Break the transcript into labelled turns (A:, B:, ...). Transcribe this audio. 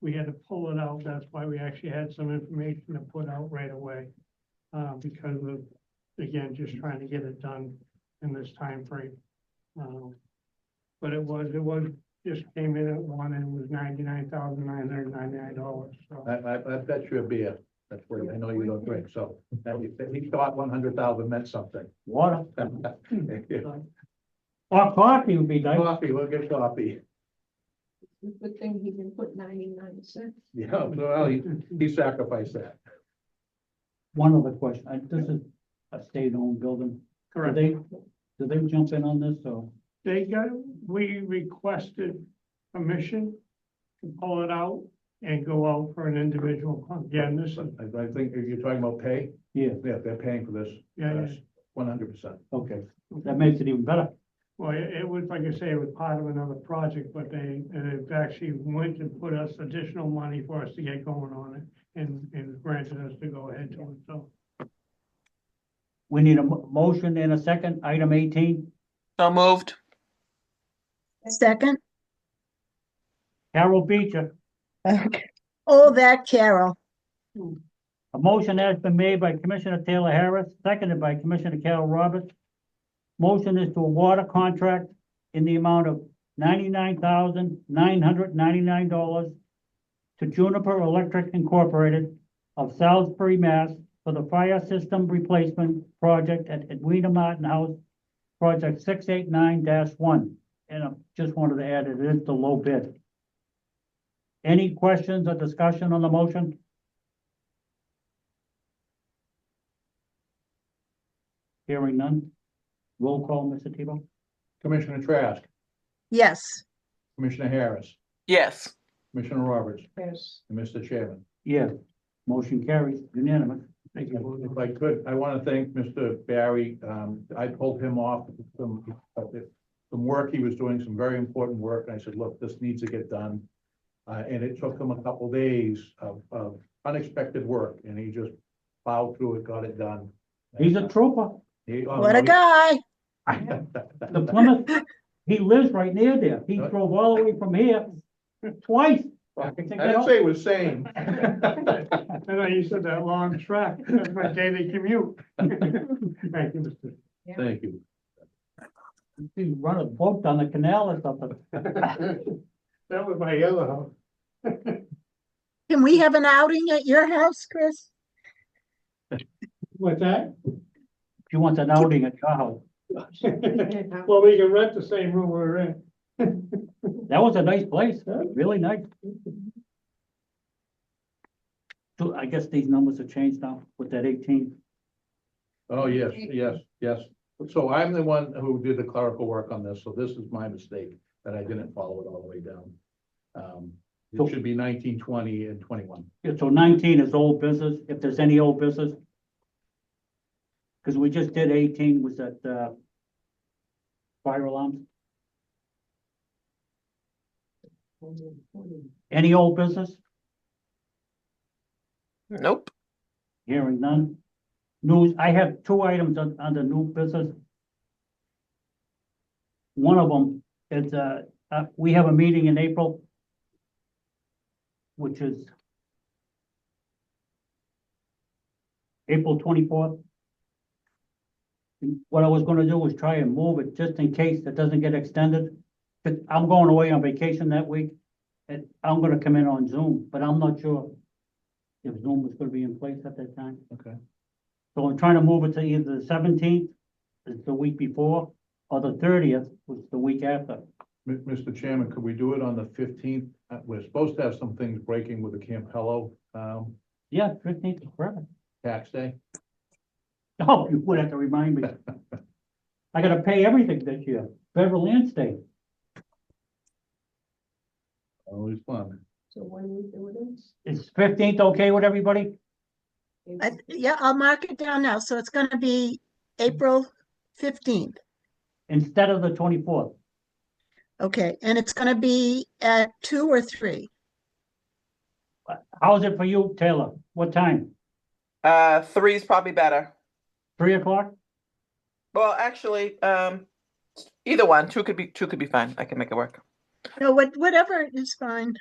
A: we had to pull it out. That's why we actually had some information to put out right away. Uh, because of, again, just trying to get it done in this timeframe. Um, But it was, it was, just came in at one and it was ninety-nine thousand nine hundred ninety-nine dollars, so.
B: I, I, I bet you a beer, that's where, I know you don't drink, so, that you- that he thought one hundred thousand meant something.
A: Water.
B: Coffee,
A: Or coffee would be nice.
B: we'll get coffee,
C: Good thing he didn't put ninety-nine cents.
B: yeah, well, he, he sacrificed that.
D: One other question, I, this is a state-owned building, do
A: Correct.
D: they, do they jump in on this, or?
A: They got, we requested permission to pull it out and go out for an individual. con- Again, this is,
B: I, I think if you're talking about pay,
D: Yeah,
B: yeah, they're paying for this,
A: yeah, yeah.
B: one hundred percent.
D: okay, that makes it even better,
A: Well, it it was, like I say, it was part of another project, but they, they actually went and put us additional money for us to get going on it and, and granted us to go ahead to it, so.
D: we need a mo- motion and a second, item eighteen,
E: So moved.
F: Second?
D: Carol Beecher.
F: Okay. Oh, that Carol.
D: A motion has been made by Commissioner Taylor Harris, seconded by Commissioner Carol Roberts. Motion is to award a contract in the amount of ninety-nine thousand, nine hundred ninety-nine dollars to Juniper Electric Incorporated of Salisbury, Mass. for the fire system replacement project at Edwina Martin House, project six eight nine one. And I just wanted to add, it is the low bid. Any questions or discussion on the motion? Hearing none. Roll call, Mr. Tebow?
B: Commissioner Trask,
F: Yes,
B: Commissioner Harris,
E: Yes.
B: Commissioner Roberts,
C: Yes.
B: and Mr. Chairman.
D: Yes. Motion carries unanimous.
A: Thank you.
B: If I could, I want to thank Mr. Barry. Um, I pulled him off some, uh, some work. He was doing some very important work. And I said, look, this needs to get done. Uh, and it took him a couple days of, of unexpected work and he just plowed through it, got it done.
D: He's a trooper.
B: He- oh,
F: what a
B: no,
F: guy.
B: he-
D: The Plymouth, he lives right near there. He drove all the way from here twice.
B: I didn't say he was sane.
A: I know you said that long track, that's my daily commute. Thank you, Mr.
B: Thank you.
D: He run a boat down the canal or something.
A: That was my yellow house.
F: Can we have an outing at your house, Chris?
A: What's that?
D: She wants an outing at your house.
A: Well, we can rent the same room we were in.
D: That was a nice place, really nice. So I guess these numbers have changed now with that eighteen.
B: Oh, yes, yes, yes. So I'm the one who did the clerical work on this, so this is my mistake that I didn't follow it all the way down. Um,
D: So-
B: it should be nineteen, twenty and twenty-one.
D: Yeah, so nineteen is old business, if there's any old business. Cause we just did eighteen, was that, uh, fire alarms, any old business,
E: Nope.
D: hearing none. News, I have two items on, on the new business. One of them is, uh, uh, we have a meeting in April. Which is. April twenty-fourth. What I was gonna do was try and move it just in case it doesn't get extended. But I'm going away on vacation that week and I'm gonna come in on Zoom, but I'm not sure. If Zoom is gonna be in place at that time.
B: Okay.
D: So I'm trying to move it to either the seventeenth, it's the week before, or the thirtieth, which is the week after.
B: M- Mr. Chairman, could we do it on the fifteenth? Uh, We're supposed to have some things breaking with the Campello, um,
D: Yeah, fifteenth is perfect.
B: tax day.
D: Oh, you would have to remind me. I gotta pay everything this year, federal and state.
B: Always fun.
C: So when we do
D: Is fifteenth okay with everybody?
C: it.
F: I, yeah, I'll mark it down now. So it's gonna be April fifteenth.
D: Instead of the twenty-fourth?
F: Okay, and it's gonna be at two or three?
D: How's it for you, Taylor? What time?
E: Uh, three is probably better.
D: Three o'clock?
E: Well, actually, um, either one, two could be, two could be fine. I can make it work.
F: No, what, whatever is fine.